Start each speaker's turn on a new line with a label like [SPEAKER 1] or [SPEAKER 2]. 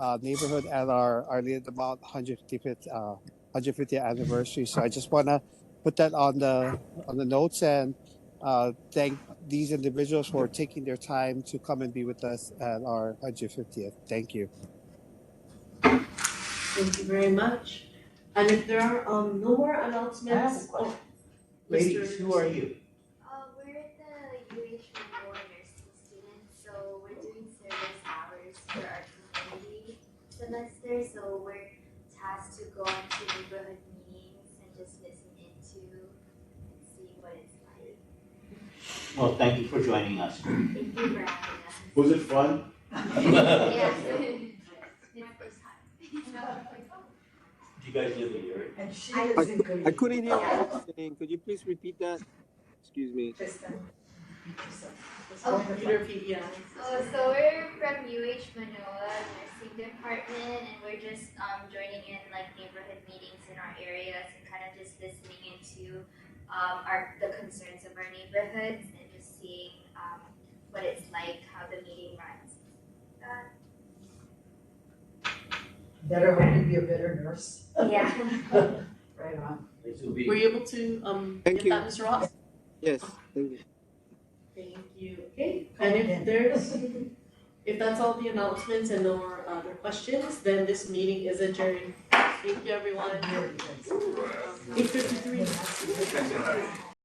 [SPEAKER 1] uh, neighborhood at our, our Mount 155th, uh, 150th anniversary. So I just want to put that on the on the notes and uh, thank these individuals for taking their time to come and be with us at our 150th. Thank you.
[SPEAKER 2] Thank you very much. And if there are um no more announcements.
[SPEAKER 3] I have a question.
[SPEAKER 2] oh, Mr.
[SPEAKER 3] Ladies, who are you?
[SPEAKER 4] Uh, we're at the UH Memorial Nursing Students, so we're doing service hours for our community semester. So we're tasked to go into neighborhood meetings and just listen into and see what it's like.
[SPEAKER 3] Well, thank you for joining us.
[SPEAKER 4] Thank you for having us.
[SPEAKER 3] Was it fun?
[SPEAKER 4] Yes.
[SPEAKER 3] Do
[SPEAKER 4] It's my first time.
[SPEAKER 3] you guys live in Erie?
[SPEAKER 5] And she
[SPEAKER 4] I-
[SPEAKER 5] lives in Goodyear.
[SPEAKER 6] I couldn't hear what you were saying. Could you please repeat that? Excuse me.
[SPEAKER 5] Kristen. It's
[SPEAKER 4] Oh,
[SPEAKER 5] wonderful.
[SPEAKER 2] Peter P, yeah.
[SPEAKER 4] Oh, so we're from UH Manoa Nursing Department, and we're just um, joining in like neighborhood meetings in our areas and kind of just listening into um, our the concerns of our neighborhoods and just seeing um, what it's like, how the meeting runs. Uh,
[SPEAKER 5] Better hope to be a better nurse.
[SPEAKER 4] yeah.
[SPEAKER 5] Right on.
[SPEAKER 3] This will be.
[SPEAKER 2] Were you able to um
[SPEAKER 6] Thank
[SPEAKER 2] get
[SPEAKER 6] you.
[SPEAKER 2] that, Mr. Ross?
[SPEAKER 6] Yes, thank you.
[SPEAKER 2] Thank you. Okay, and if there's, if that's all the announcements and no more other questions, then this meeting is adjourned. Thank you, everyone.
[SPEAKER 5] Here it is.
[SPEAKER 2] Eight fifty-three.
[SPEAKER 5] Yes.